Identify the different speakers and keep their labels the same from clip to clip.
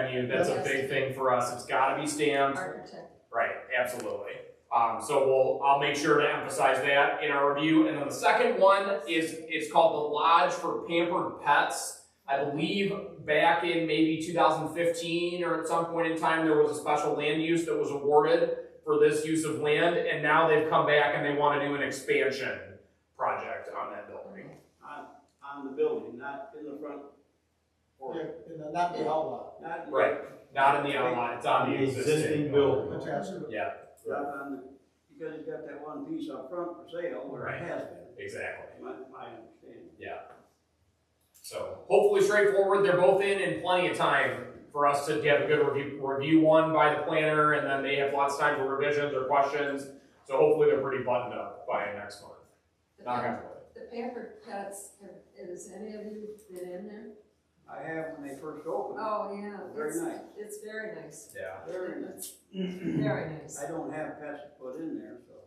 Speaker 1: I mean, that's a
Speaker 2: Yes.
Speaker 1: big thing for us, it's gotta be stamped,
Speaker 2: architect.
Speaker 1: right, absolutely. Um, so we'll, I'll make sure to emphasize that in our review, and then the second one is, is called the Lodge for Pampered Pets. I believe back in maybe two thousand fifteen, or at some point in time, there was a special land use that was awarded for this use of land, and now they've come back and they wanna do an expansion project on that building.
Speaker 3: on the building, not in the front
Speaker 4: Yeah,
Speaker 3: or
Speaker 4: and not the outlot,
Speaker 3: not. in-
Speaker 1: Right. Not in the outline, it's on the
Speaker 5: The
Speaker 1: existing.
Speaker 5: existing building.
Speaker 4: attached to it.
Speaker 1: Yeah,
Speaker 3: Not on the, because it's got that one piece up front for sale, or
Speaker 1: Right.
Speaker 3: it has been,
Speaker 1: exactly.
Speaker 3: my, my understanding.
Speaker 1: So hopefully straightforward. They're both in in plenty of time for us to have a good review, review one by the planner, and then they have lots of time for revisions or questions. So hopefully they're pretty buttoned up by next month.
Speaker 2: The
Speaker 1: Knock on
Speaker 2: pam-
Speaker 1: wood.
Speaker 2: The pampered pets, have- has any of you been in there?
Speaker 3: I have when they first opened, it.
Speaker 2: Oh, yeah.
Speaker 3: Very
Speaker 2: it's-
Speaker 3: nice.
Speaker 2: It's very nice.
Speaker 1: Yeah.
Speaker 3: very nice.
Speaker 2: It's very nice.
Speaker 3: I don't have pets to put in there, so.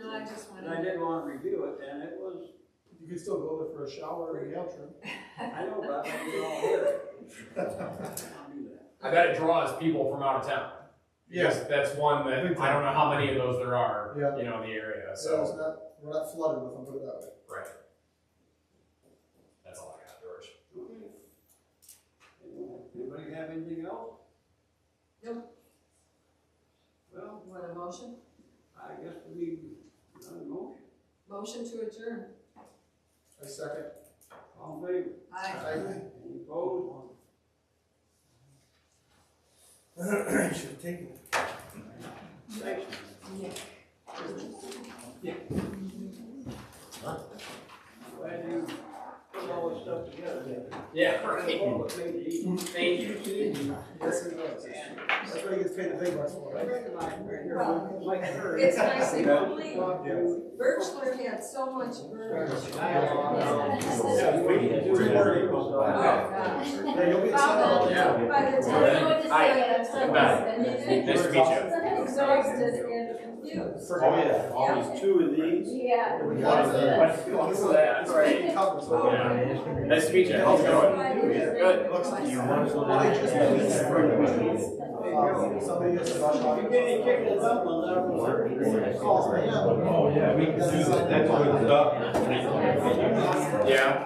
Speaker 2: No, I just
Speaker 3: And I
Speaker 2: wanted.
Speaker 3: did want to review it, and it was,
Speaker 4: You could still go there for a shower or a bathroom.
Speaker 3: I know, but I don't all here. I'll do that.
Speaker 1: I bet it draws people from out of town. Yes, that's one that
Speaker 4: Big
Speaker 1: I don't know how many of those there are,
Speaker 4: Yeah.
Speaker 1: you know, in the area.
Speaker 4: So
Speaker 1: So
Speaker 4: it's not, we're not flooded with them, put it that way.
Speaker 1: right. That's all I got, George.
Speaker 3: Anybody have anything else?
Speaker 2: Nope.
Speaker 3: Well,
Speaker 2: Want a motion?
Speaker 3: I guess we need another motion,
Speaker 2: Motion to adjourn.
Speaker 4: I second.
Speaker 3: all in favor?
Speaker 2: Aye.
Speaker 4: I-
Speaker 3: Any opposed?
Speaker 5: Should've taken it.
Speaker 3: Thanks.
Speaker 2: Yeah.
Speaker 3: Glad you put all this stuff together.
Speaker 1: Yeah.
Speaker 3: All it made it easy.
Speaker 1: Thank you.
Speaker 4: Yes, it does. That's what he gets paid the big bucks for,
Speaker 3: I
Speaker 4: right?
Speaker 3: recognize right here,
Speaker 2: Well,
Speaker 3: like her.
Speaker 2: it's nice and
Speaker 3: Yeah.
Speaker 2: complete.
Speaker 3: Yeah.
Speaker 2: Birchler had so much verbiage.
Speaker 3: Yeah, we need to do it.
Speaker 2: Oh, God.
Speaker 4: Yeah, you'll be excited.
Speaker 2: By the- by the time you went to
Speaker 1: Aye.
Speaker 2: say it, I'm so
Speaker 1: Goodbye.
Speaker 2: excited.
Speaker 1: Nice to meet you.
Speaker 2: I'm exhausted and confused.
Speaker 5: Oh, yeah, always two of these.
Speaker 2: Yeah.
Speaker 4: We got it.
Speaker 1: What's that?
Speaker 4: It's already covered, so-
Speaker 2: Oh,
Speaker 1: Yeah.
Speaker 2: yeah.
Speaker 1: Nice to meet you. How's it going? Good.
Speaker 4: Looks like
Speaker 5: You want to-
Speaker 4: Well, they just made it
Speaker 5: Yeah.
Speaker 4: Um, Somebody gets a rush on.
Speaker 3: You're getting kicked in the butt on that one.
Speaker 4: Calls me, yeah.
Speaker 5: Oh, yeah, we can do that, that's where the duck.
Speaker 1: Yeah.